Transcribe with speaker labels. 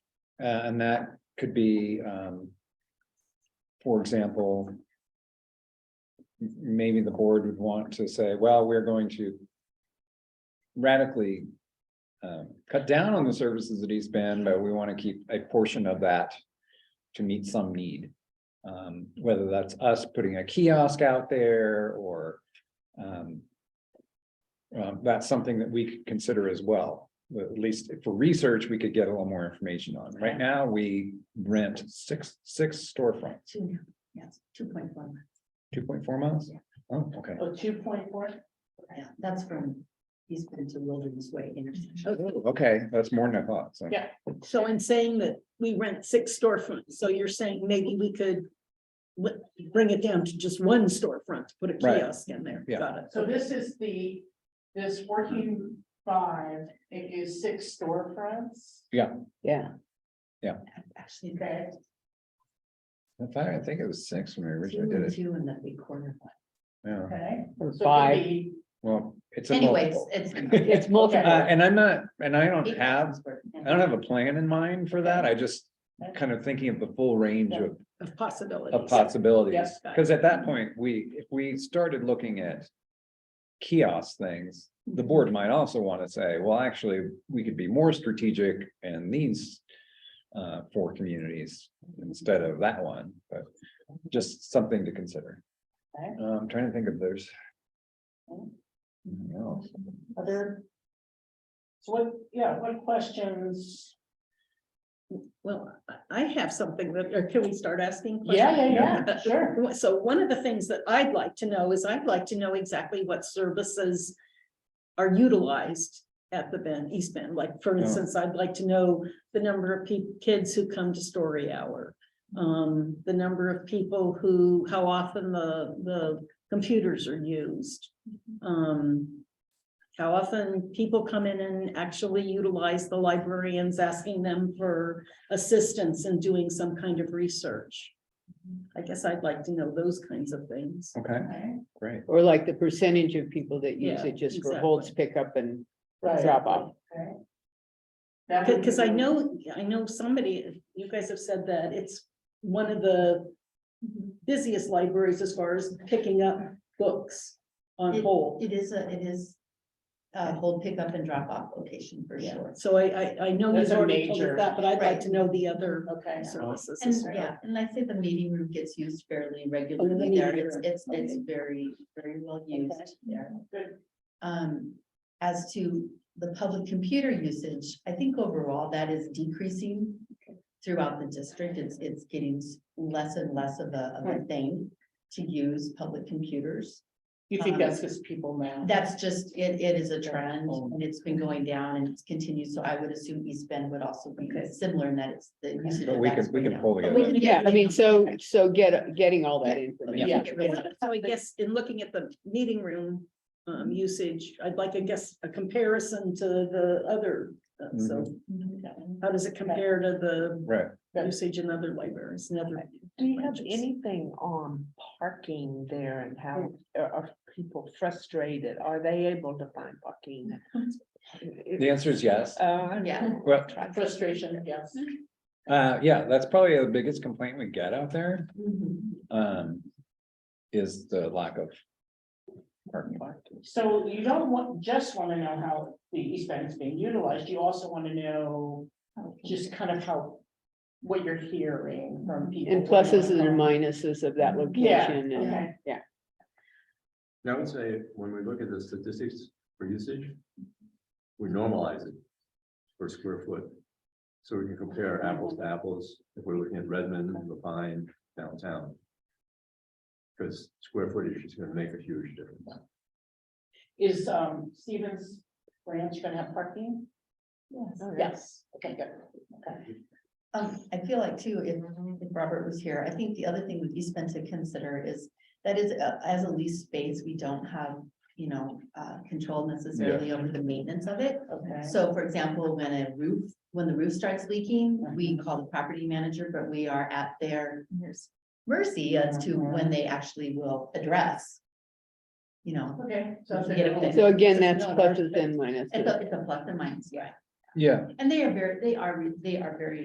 Speaker 1: Uh, and that could be, um. For example. m- Maybe the board would want to say, well, we're going to. Radically. Um, cut down on the services at East Bend, but we want to keep a portion of that. To meet some need. Um, whether that's us putting a kiosk out there or, um. um, that's something that we could consider as well, But at least for research, we could get a little more information on. Right now, we rent six, six storefronts,
Speaker 2: Two, yes, two point one.
Speaker 1: two point four miles?
Speaker 2: Yeah.
Speaker 1: Oh, okay.
Speaker 3: Oh, two point four?
Speaker 2: Yeah, that's from East Bend to Wilderness Way intersection.
Speaker 1: Oh, Okay, that's more than I thought, so.
Speaker 3: Yeah.
Speaker 4: So in saying that we rent six storefronts, so you're saying maybe we could. wi- bring it down to just one storefront, put a
Speaker 1: Right.
Speaker 4: kiosk in there.
Speaker 1: Yeah.
Speaker 4: Got it.
Speaker 3: So this is the, this working five, it is six storefronts.
Speaker 5: Yeah,
Speaker 2: Actually,
Speaker 3: Okay,
Speaker 1: I thought, I think it was six when we
Speaker 2: two
Speaker 1: originally
Speaker 2: and
Speaker 1: did it,
Speaker 2: two and that big corner one.
Speaker 1: yeah,
Speaker 3: okay.
Speaker 5: or
Speaker 3: So
Speaker 5: five.
Speaker 3: it
Speaker 1: well, it's a
Speaker 2: Anyways,
Speaker 1: multiple.
Speaker 2: it's.
Speaker 5: It's multiple.
Speaker 1: Uh, and I'm not, and I don't
Speaker 2: Eight
Speaker 1: have,
Speaker 2: thousand square feet.
Speaker 1: I don't have a plan in mind for that, I just kind of thinking of the full range of
Speaker 4: Of possibilities.
Speaker 1: of possibilities.
Speaker 4: Yeah.
Speaker 1: Because at that point, we, if we started looking at kiosk things, the board might also want to say, well, actually, we could be more strategic and these uh, four communities instead of that one, but just something to consider.
Speaker 3: Okay.
Speaker 1: Uh, I'm trying to think if there's.
Speaker 3: Okay.
Speaker 1: anything else.
Speaker 3: could be Other. So what, yeah, what questions?
Speaker 4: Well, I- I have something that, or can we start asking?
Speaker 3: Yeah,
Speaker 4: questions?
Speaker 3: yeah, yeah, sure.
Speaker 4: So one of the things that I'd like to know is I'd like to know exactly what services are utilized at the Bend, East Bend. Like, for
Speaker 1: Yeah.
Speaker 4: instance, I'd like to know the number of peo- kids who come to story hour. Um, the number of people who, how often the, the computers are used. Um, how often people come in and actually utilize the librarians, asking them for assistance in doing some kind of research. I guess I'd like to know those kinds of things.
Speaker 1: Okay,
Speaker 3: Okay,
Speaker 1: great.
Speaker 5: Or like the percentage of people that use
Speaker 4: Yeah,
Speaker 5: it just for holds pickup and drop off.
Speaker 3: okay. That would be
Speaker 4: Because I
Speaker 3: the-
Speaker 4: know, I know somebody, you guys have said that it's one of the busiest libraries as far as picking up books on
Speaker 2: It-
Speaker 4: hold.
Speaker 2: It is a, it is a whole pickup and drop off location for
Speaker 4: Yeah,
Speaker 2: sure.
Speaker 4: so I, I, I know
Speaker 3: That's
Speaker 4: you've
Speaker 3: a
Speaker 4: already told us
Speaker 3: major-
Speaker 4: that, but I'd like
Speaker 2: Right.
Speaker 4: to know the other
Speaker 3: Okay,
Speaker 4: services.
Speaker 2: And
Speaker 4: as well.
Speaker 2: yeah, and I say the meeting room gets used fairly regularly
Speaker 4: Oh, meeting
Speaker 2: there. It's,
Speaker 4: room,
Speaker 2: it's, it's
Speaker 4: okay.
Speaker 2: very, very well used there.
Speaker 3: good.
Speaker 2: Um, as to the public computer usage, I think overall that is decreasing throughout the district. It's, it's getting s- less and less of a, of a thing to use public computers.
Speaker 3: You think that's just people now?
Speaker 2: That's just, it, it is a trend
Speaker 1: Oh.
Speaker 2: and it's been going down and it's continued. So I would assume East Bend would also be
Speaker 4: Okay.
Speaker 2: similar in that it's the usage.
Speaker 1: But
Speaker 2: of
Speaker 1: we
Speaker 2: that is
Speaker 1: could, we
Speaker 2: going
Speaker 1: could
Speaker 2: down.
Speaker 1: pull
Speaker 2: But
Speaker 1: together.
Speaker 2: we can-
Speaker 5: Yeah, I mean, so,
Speaker 2: Okay.
Speaker 5: so get, getting all that information.
Speaker 3: Yeah.
Speaker 4: So I guess in looking at the meeting room um usage, I'd like, I guess, a comparison to the other. uh, So
Speaker 2: Mm-hmm.
Speaker 4: how does it compare to the
Speaker 1: Right,
Speaker 4: usage in other libraries and other?
Speaker 6: Do you have
Speaker 4: branches?
Speaker 6: anything on parking there and how are are people frustrated? Are they able to find parking?
Speaker 1: the answer is yes,
Speaker 5: Oh,
Speaker 6: Uh,
Speaker 2: Yeah,
Speaker 1: well,
Speaker 3: Frustration, yes.
Speaker 1: uh, yeah, that's probably the biggest complaint we get out there.
Speaker 2: Mhm.
Speaker 1: um, is the lack of parking lot.
Speaker 3: So you don't want, just want to know how the East Bend is being utilized, you also want to know just kind of how, what you're hearing from people.
Speaker 5: And pluses and minuses of that location and.
Speaker 3: Okay.
Speaker 7: And I would say, when we look at the statistics for usage, we normalize it for square foot. So we can compare apples to apples, if we're looking at Redmond, Lapine, downtown. Because square footage is gonna make a huge difference.
Speaker 3: Is um Stevens Ranch gonna have parking?
Speaker 2: yes.
Speaker 3: Yes. Okay, good, okay.
Speaker 2: Um, I feel like too, if, if Robert was here, I think the other thing with East Bend to consider is that is, uh, as a lease space, we don't have, you know, uh, control necessarily over the maintenance of it.
Speaker 3: Okay.
Speaker 2: So for example, when a roof, when the roof starts leaking, we call the property manager, but we are at their mercy as to when they actually will address. You know,
Speaker 3: Okay. so if
Speaker 2: Get
Speaker 3: they're
Speaker 2: it
Speaker 3: gonna-
Speaker 5: So again, that's
Speaker 3: No, they're-
Speaker 5: pluses and
Speaker 2: it's
Speaker 5: minuses.
Speaker 2: a, it's a plus and minus, yeah.
Speaker 1: Yeah,
Speaker 2: And they are very, they are, they are very